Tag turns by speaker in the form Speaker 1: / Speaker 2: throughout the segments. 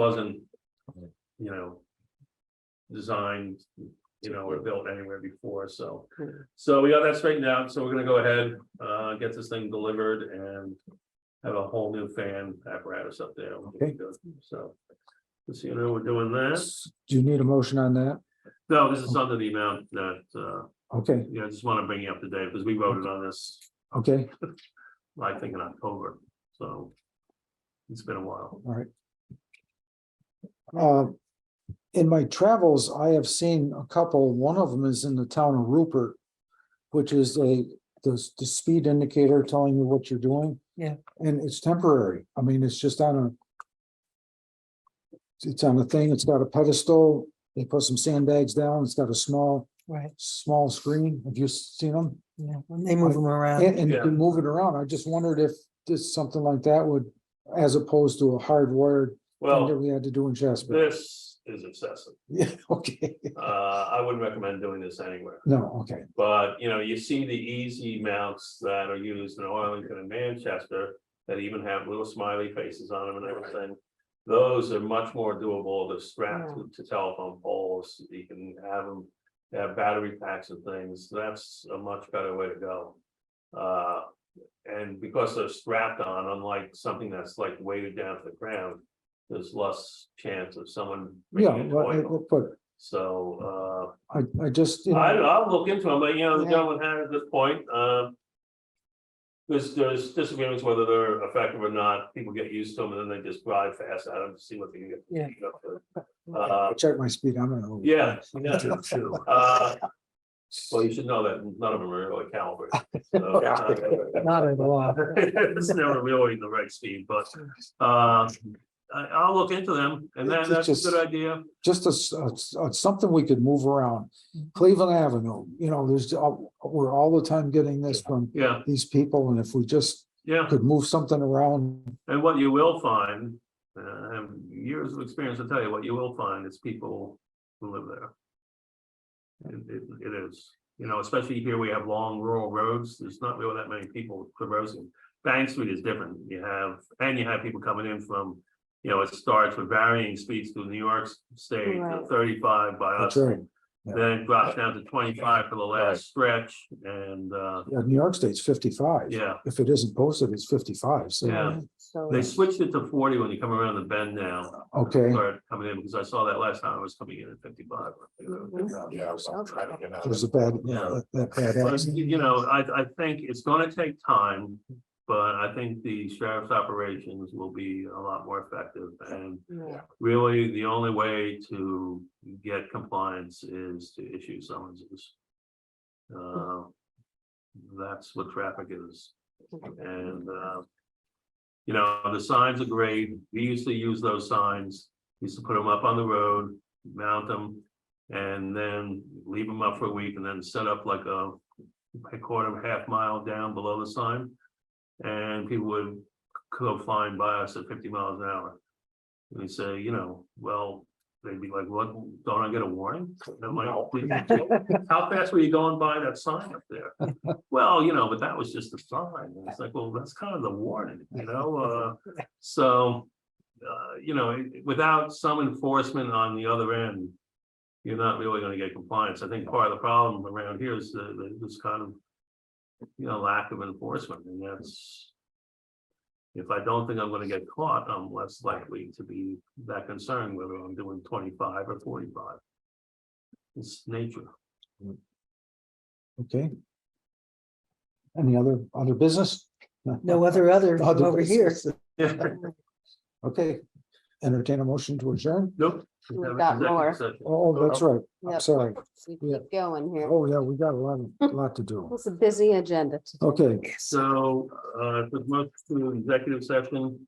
Speaker 1: wasn't, you know. Designed, you know, or built anywhere before, so. So we got that straightened out, so we're gonna go ahead, uh, get this thing delivered and. Have a whole new fan apparatus up there.
Speaker 2: Okay.
Speaker 1: So. Let's see, you know, we're doing that.
Speaker 2: Do you need a motion on that?
Speaker 1: No, this is under the amount that, uh,
Speaker 2: Okay,
Speaker 1: yeah, I just wanna bring you up to date, because we voted on this,
Speaker 2: okay,
Speaker 1: I think in October, so. It's been a while.
Speaker 2: all right. Uh, in my travels, I have seen a couple, one of them is in the town of Rupert. Which is a, the, the speed indicator telling you what you're doing.
Speaker 3: Yeah.
Speaker 2: And it's temporary, I mean, it's just on a. It's on a thing, it's got a pedestal, they put some sandbags down, it's got a small,
Speaker 3: Right,
Speaker 2: small screen, have you seen them?
Speaker 3: yeah, when they move them around,
Speaker 2: And, and you
Speaker 1: Yeah.
Speaker 2: can move it around. I just wondered if this, something like that would, as opposed to a hardwired thing that
Speaker 1: Well,
Speaker 2: we had to do in Jasper.
Speaker 1: this is excessive.
Speaker 2: Yeah, okay.
Speaker 1: Uh, I wouldn't recommend doing this anywhere.
Speaker 2: No, okay,
Speaker 1: But, you know, you see the easy mounts that are used in Arlington and Manchester that even have little smiley faces on them and everything. Those are much more doable to strap to- to telephone poles. You can have them, have battery packs and things. That's a much better way to go. Uh, and because they're strapped on, unlike something that's like weighted down to the ground, there's less chance of someone.
Speaker 2: yeah,
Speaker 1: making a
Speaker 2: well, I-
Speaker 1: noise.
Speaker 2: well, but
Speaker 1: So, uh,
Speaker 2: I, I just, you know,
Speaker 1: I, I'll look into them, but you know, the
Speaker 3: Yeah.
Speaker 1: gentleman had at this point, um. There's, there's disagreements whether they're effective or not, people get used to them and then they just drive fast at them to see what they can get.
Speaker 3: Yeah.
Speaker 1: Uh,
Speaker 2: check my speed, I'm gonna.
Speaker 1: yeah, yeah, uh, well, you should know that none of them are really calibrated. so, uh,
Speaker 3: not at all.
Speaker 1: It's never really the right speed, but, uh, I, I'll look into them and then
Speaker 2: It's
Speaker 1: that's a
Speaker 2: just-
Speaker 1: good idea.
Speaker 2: Just a s- a s- a- something we could move around.
Speaker 3: Mhm.
Speaker 2: Cleveland Avenue, you know, there's, uh, we're all the time getting this from
Speaker 1: Yeah,
Speaker 2: these people, and if we just
Speaker 1: yeah.
Speaker 2: could move something around,
Speaker 1: And what you will find, uh, I have years of experience to tell you, what you will find is people who live there. It, it- it is, you know, especially here we have long rural roads, there's not really that many people traversing. Bank Street is different, you have, and you have people coming in from, you know, it starts with varying speeds through New York State,
Speaker 3: Right.
Speaker 1: thirty-five by us.
Speaker 2: that's right. yeah.
Speaker 1: Then it drops down to twenty-five for the last stretch, and, uh,
Speaker 2: Yeah, New York State's fifty-five.
Speaker 1: yeah.
Speaker 2: If it isn't posted, it's fifty-five, so.
Speaker 1: Yeah. They switched it to forty when you come around the bend now.
Speaker 2: Okay,
Speaker 1: Start coming in, because I saw that last time I was coming in at fifty-five. oh,
Speaker 4: Yeah, I was trying to get out.
Speaker 2: there's a bad,
Speaker 1: Yeah.
Speaker 2: that that bad
Speaker 1: But,
Speaker 2: accident.
Speaker 1: You know, I, I think it's gonna take time, but I think the sheriff's operations will be a lot more effective. And really, the only way to get compliance is to issue summonses. Uh, That's what traffic is. And, uh, you know, the signs are great. We used to use those signs. We Used to put them up on the road, mount them. And then leave them up for a week and then set up like a, a quarter, of a half mile down below the sign. And people would go flying by us at fifty miles an hour. And we say, you know, well, they'd be like, what, don't I get a warning? And I'm like,
Speaker 4: No.
Speaker 1: How fast were you going by that sign up there? Well, you know, but that was just a sign. And It's like, well, that's kind of the warning, you know, uh, so. Uh, you know, it- without some enforcement on the other end. You're not really gonna get compliance. I think part of the problem around here is the, the, this kind of. You know, lack of enforcement and that's. If I don't think I'm gonna get caught, I'm less likely to be that concerned whether I'm doing twenty-five or forty-five. It's nature.
Speaker 2: Okay. Any other, other business?
Speaker 3: No other other
Speaker 2: Other
Speaker 3: over here.
Speaker 2: business. Okay, entertain a motion to adjourn?
Speaker 1: Nope.
Speaker 5: We've got more.
Speaker 2: Oh, that's right.
Speaker 5: Yep.
Speaker 2: I'm sorry.
Speaker 5: We
Speaker 2: Yeah.
Speaker 5: keep going here.
Speaker 2: Oh, yeah, we got a lot, of- lot to do.
Speaker 5: It's a busy agenda. today.
Speaker 2: Okay,
Speaker 1: So, uh, for most to executive session,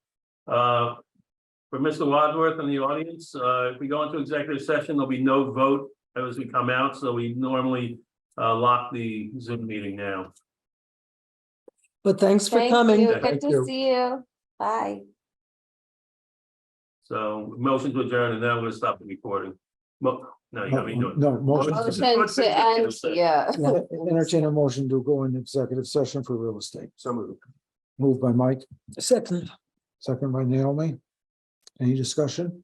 Speaker 1: uh. For Mr. Wadsworth and the audience, uh, if we go into executive session, there'll be no vote as we come out, so we normally. Uh, lock the Zoom meeting now.
Speaker 3: But thanks for
Speaker 5: Thank
Speaker 3: coming.
Speaker 5: you.
Speaker 1: Thank
Speaker 5: Good
Speaker 2: you.
Speaker 5: to see you. Bye.
Speaker 1: So motion to adjourn and then we'll stop the recording. Mo- no, you
Speaker 2: no,
Speaker 1: don't mean doing.
Speaker 2: no, motion,
Speaker 1: Motion.
Speaker 5: Motion to end, yeah.
Speaker 2: yeah, entertain a motion to go in executive session for real estate.
Speaker 4: So moved.
Speaker 2: Moved by Mike,
Speaker 3: Second.
Speaker 2: second by Naomi. Any discussion?